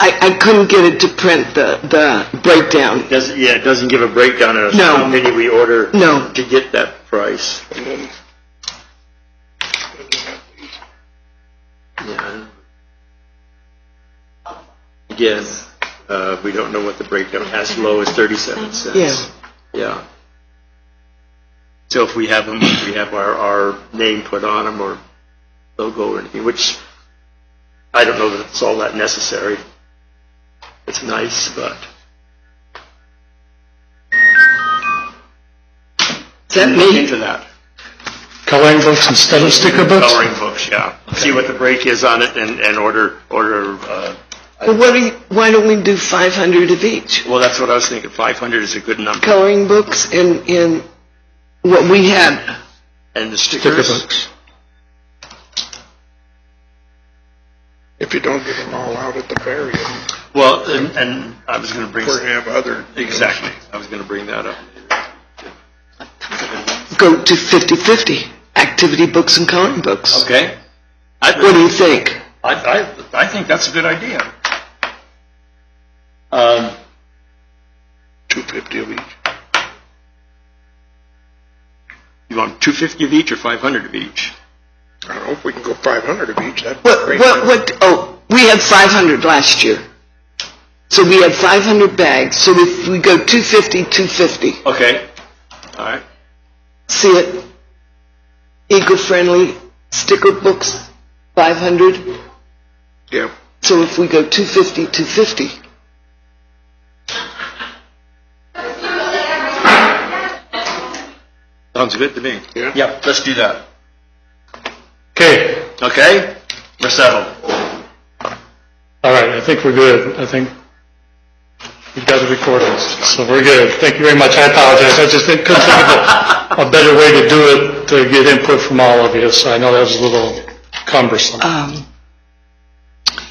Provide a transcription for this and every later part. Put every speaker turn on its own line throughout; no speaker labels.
I, I couldn't get it to print the, the breakdown.
Doesn't, yeah, it doesn't give a breakdown of
No.
how many we order
No.
to get that price. Yeah. Again, uh, we don't know what the breakdown, as low as 37 cents.
Yeah.
Yeah. So if we have them, we have our, our name put on them or logo or anything, which I don't know that it's all that necessary. It's nice, but.
Is that
Look
me?
Into that.
Coloring books instead of sticker books?
Coloring books, yeah. See what the break is on it and, and order, order, uh,
Well, what do you, why don't we do 500 of each?
well, that's what I was thinking, 500 is a good number.
Coloring books and, and what we had.
And the
Sticker
stickers,
books.
if you don't get them all out at the ferry,
well, and, and I was gonna bring,
or have other.
exactly, I was gonna bring that up.
Go to 50-50, activity books and coloring books.
Okay?
What do you think?
I, I, I think that's a good idea. Um,
Two fifty of each.
you want two fifty of each or five hundred of each?
I don't know if we can go five hundred of each, that'd be
What,
great.
what, what, oh, we had 500 last year. So we had 500 bags, so if we go 250, 250,
Okay. All right.
see it? Eco-friendly sticker books, 500.
Yeah,
So if we go 250, 250,
Sounds good to me.
Yeah.
Yep, let's do that.
Okay,
Okay? We're settled.
all right, I think we're good. I think we've got the recordings, so we're good. Thank you very much. I apologize, I just didn't- couldn't think of a, a better way to do it, to get input from all of you, so I know that was a little cumbersome.
um,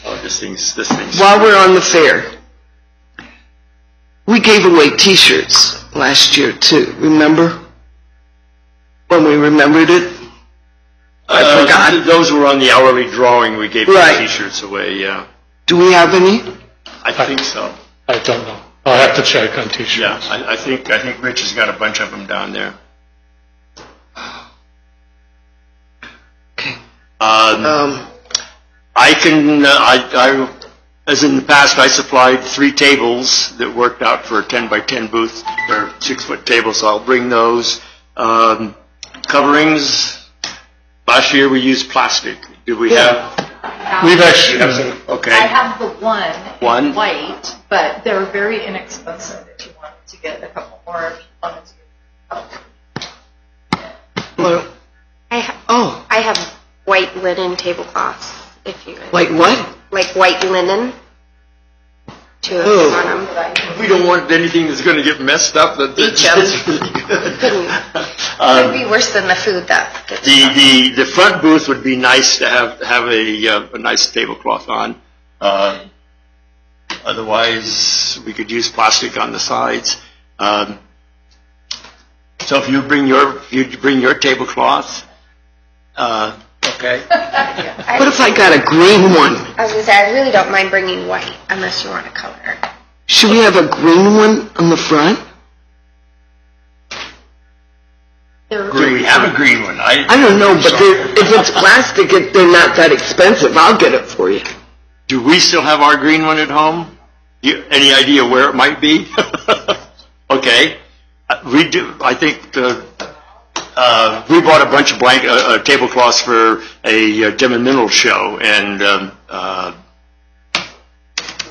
Oh, this thing's, this thing's.
while we're on the fair, we gave away t-shirts last year too, remember? When we remembered it?
I forgot. Uh, Those were on the hourly drawing. We gave the
Right.
t-shirts away, yeah.
Do we have any?
I think so.
I don't know. I'll have to check on
Yeah,
T-shirts.
I, I think, I think Rich has got a bunch of them down there.
Okay.
Um,
Um,
I can, uh, I, I, as in the past, I supplied three tables that worked out for a 10 by 10 booth, or six-foot tables, so I'll bring those. Um, Coverings, last year we used plastic. Do we have,
We've actually, uh,
okay.
I have the one. in
One?
White, but they're very inexpensive if you wanted to get a couple more, if you wanted to. Oh,
well,
I have,
oh,
I have white linen tablecloths, if you,
like what?
like white linen. Two of
Oh.
them on them.
We don't want anything that's gonna get messed up, that, that's that's really good.
It would be worse than the food that gets
The, the, the front booth would be nice to have, have a, uh, a nice tablecloth on. Uh, Otherwise, we could use plastic on the sides. Um, So if you bring your, if you bring your tablecloth, uh. Okay.
What if I got a green one?
I was gonna say, I really don't mind bringing white unless you want to color.
Should we have a green one on the front?
They're-
Do we have a green one?
I
I,
don't know, but they're- if it's plastic, it- they're not that expensive. I'll get it for you.
do we still have our green one at home? You, any idea where it might be? Okay, Uh, we do, I think the, uh, we bought a bunch of blank, uh, uh, tablecloths for a uh, Dim and Minnell show, and, um, uh,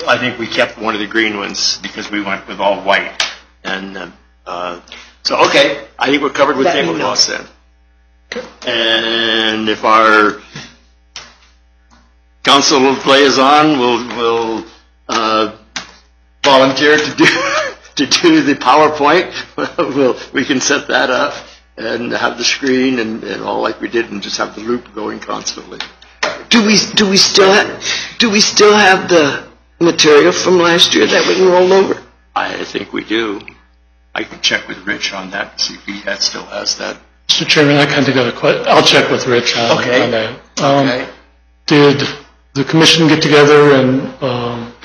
I think we kept one of the green ones because we went with all white, and, uh, uh, so, okay, I think we're covered with
Let me know.
tablecloths then. And if our council liaison will, will, uh, volunteer to do to do the PowerPoint. we'll, we can set that up and have the screen and, and all like we did, and just have the loop going constantly.
Do we, do we still, ha- do we still have the material from last year that we can roll over?
I think we do. I can check with Rich on that see if he had, still has that.
Mr. Chairman, I kind of got a que, I'll check with Rich on
Okay.
on that. Um, Did the commission get together and um,